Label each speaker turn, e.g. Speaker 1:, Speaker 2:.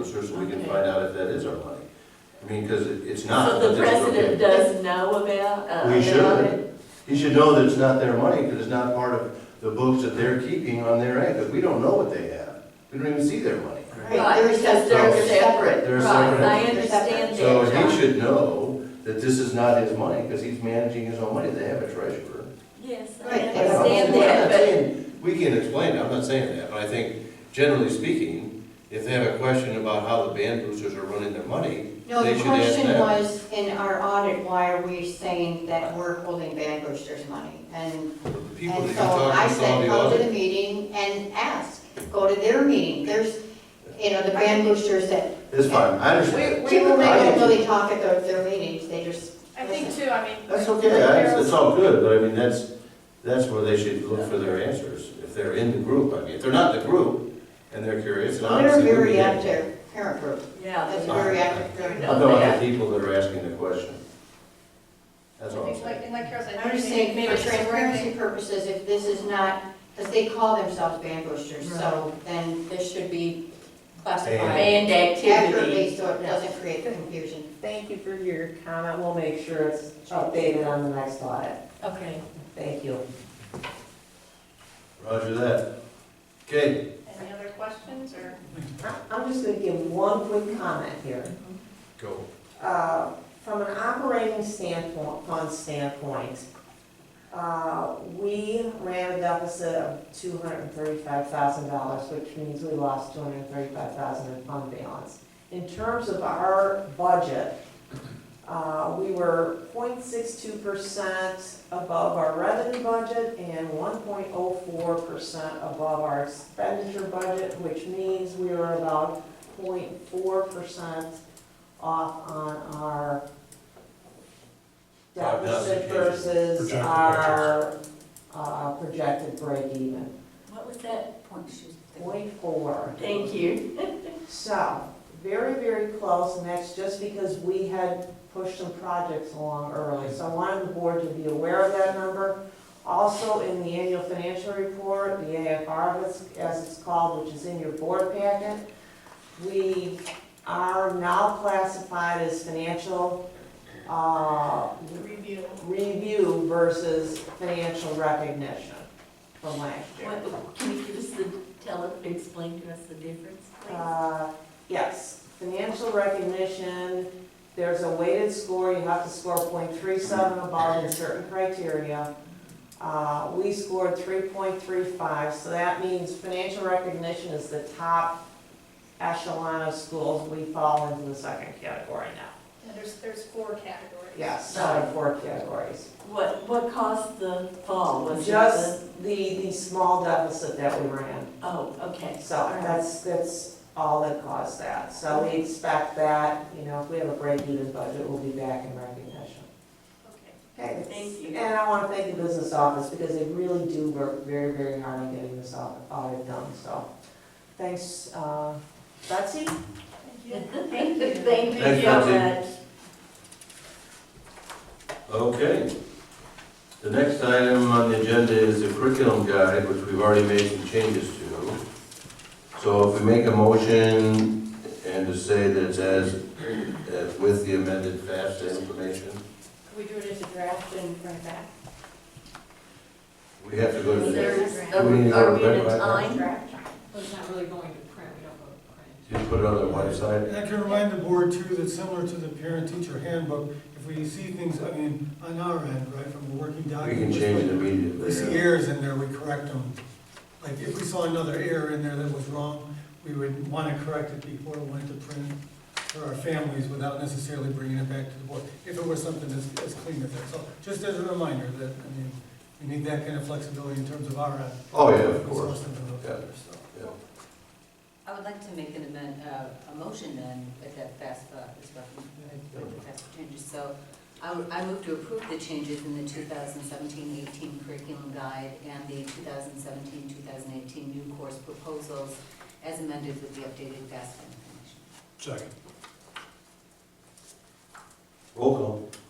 Speaker 1: extinguisher so we can
Speaker 2: Okay.
Speaker 1: find out if that is our money. I mean, because it's not.
Speaker 2: So the
Speaker 1: but it's okay.
Speaker 2: president does know about, uh,
Speaker 1: We
Speaker 2: about
Speaker 1: should.
Speaker 2: it?
Speaker 1: He should know that it's not their money because it's not part of the books that they're keeping on their end, because we don't know what they have. We don't even see their money.
Speaker 2: Right, because they're
Speaker 1: They're
Speaker 2: separate.
Speaker 1: They're
Speaker 2: Right,
Speaker 1: separate.
Speaker 2: I understand
Speaker 1: So
Speaker 2: that,
Speaker 1: he
Speaker 2: John.
Speaker 1: should know that this is not his money because he's managing his own money. They have a treasurer.
Speaker 2: Yes, I
Speaker 3: Right,
Speaker 1: I'm not saying-
Speaker 2: understand that, but
Speaker 1: We can explain, it. I'm not saying that, but I think generally speaking, if they have a question about how the band boosters are running their money,
Speaker 3: No,
Speaker 1: They
Speaker 3: the
Speaker 1: should ask
Speaker 3: question
Speaker 1: them.
Speaker 3: was, in our audit, why are we saying that we're holding Van Boosters money? And,
Speaker 1: the people that
Speaker 3: and
Speaker 1: you
Speaker 3: so
Speaker 1: talk
Speaker 3: I
Speaker 1: to saw
Speaker 3: said,
Speaker 1: the
Speaker 3: come to the
Speaker 1: audit.
Speaker 3: meeting and ask, go to their meeting, there's, you know, the Van Boosters that,
Speaker 1: It's fine, I understand.
Speaker 4: We-
Speaker 3: people
Speaker 1: I
Speaker 3: that don't
Speaker 1: didn't-
Speaker 3: really talk at their, their meetings, they just.
Speaker 4: I think too, I mean.
Speaker 1: That's okay, that's, it's all good, but I mean, that's, that's where they should look for their answers, if they're in the group, I mean, if they're not in the group and they're curious, and
Speaker 3: They're
Speaker 1: obviously. we
Speaker 3: very
Speaker 1: can-
Speaker 3: active, parent group,
Speaker 2: yeah.
Speaker 3: that's
Speaker 2: they-
Speaker 3: very active. parent group.
Speaker 1: I'm talking about the people that are asking the question. That's all
Speaker 4: I
Speaker 1: I'm
Speaker 4: think like,
Speaker 1: saying.
Speaker 4: and like Carol said.
Speaker 3: I'm just
Speaker 4: maybe-
Speaker 3: saying, for
Speaker 4: maybe it's
Speaker 3: transparency purposes, if this is not, because they call themselves Van Boosters, so then this should be classified
Speaker 2: Band activity.
Speaker 3: accurately, so it doesn't create confusion.
Speaker 5: Thank you for your comment. We'll make sure it's updated on the next audit.
Speaker 2: Okay.
Speaker 5: Thank you.
Speaker 1: Roger that. Okay,
Speaker 4: Any other questions or?
Speaker 5: I- I'm just gonna give one quick comment here.
Speaker 1: go.
Speaker 5: Uh, From an operating standpoint, fund standpoint, uh, we ran a deficit of two hundred and thirty-five thousand dollars, which means we lost two hundred and thirty-five thousand in fund balance. In terms of our budget, uh, we were 0.62 percent above our revenue budget and one point oh four percent above our expenditure budget, which means we were about 0.4 percent off on our
Speaker 1: Five thousand
Speaker 5: deficit
Speaker 1: cases.
Speaker 5: versus
Speaker 6: Projected
Speaker 5: our uh, projected break even,
Speaker 2: What was that point she was thinking?
Speaker 5: point four.
Speaker 2: Thank you.
Speaker 5: So, very, very close, and that's just because we had pushed some projects along early. So I wanted the board to be aware of that number. Also, in the annual financial report, the AFR, as- as it's called, which is in your board packet, we are now classified as financial uh,
Speaker 4: Review.
Speaker 5: review versus financial recognition from last year.
Speaker 2: What, can you give us the, tell, us- explain to us the difference, please?
Speaker 5: Uh, Yes, financial recognition, there's a weighted score, you have to score 0.37 above in certain criteria. Uh, We scored three point three five, so that means financial recognition is the top echelon of schools. We fall into the second category now.
Speaker 4: And there's, there's four categories.
Speaker 5: Yes, out of four categories.
Speaker 2: What, what caused the fall? Was it
Speaker 5: Just the, the small deficit that we ran.
Speaker 2: the- Oh, okay.
Speaker 5: So
Speaker 2: All right.
Speaker 5: that's, that's all that caused that. So we expect that, you know, if we have a break even budget, we'll be back in recognition.
Speaker 4: Okay.
Speaker 5: Okay.
Speaker 2: Thank you.
Speaker 5: And I want to thank the business office because they really do work very, very hard on getting this au- audit done, so. Thanks, uh, Betsy?
Speaker 4: Thank you.
Speaker 2: Thank you
Speaker 1: Thank you,
Speaker 2: so much.
Speaker 1: Betsy. Okay. The next item on the agenda is the curriculum guide, which we've already made some changes to. So if we make a motion and to say that it's as, as with the amended FAFSA information,
Speaker 3: Can we do it as a draft and bring it back?
Speaker 1: we have to go to
Speaker 2: Is
Speaker 1: the
Speaker 2: there,
Speaker 1: next.
Speaker 2: are
Speaker 1: Do we need
Speaker 2: we
Speaker 1: to
Speaker 2: are we
Speaker 1: go
Speaker 2: in
Speaker 1: back?
Speaker 2: a time?
Speaker 3: Draft?
Speaker 7: Well, it's not really going to print, we don't go to print.
Speaker 1: Just put it on the website.
Speaker 6: And I can remind the board too, that similar to the parent-teacher handbook, if we see things, I mean, on our end, right, from the working
Speaker 1: We can
Speaker 6: document.
Speaker 1: change it
Speaker 6: If we see
Speaker 1: immediately.
Speaker 6: errors in there, we correct them. Like, if we saw another error in there that was wrong, we would want to correct it before it went to print for our families without necessarily bringing it back to the board, if it was something that's, as clean as that. So just as a reminder that, I mean, we need that kind of flexibility in terms of our end.
Speaker 1: Oh, yeah, of
Speaker 6: If we saw
Speaker 1: course.
Speaker 6: something out there, so.
Speaker 7: I would like to make an amend, uh, a motion then with that uh, FAFSA, is what, with the FAFSA changes. So I, would- I move to approve the changes in the 2017-18 curriculum guide and the 2017-2018 new course proposals as amended with the updated FAFSA information.
Speaker 6: Second.
Speaker 1: Roll call.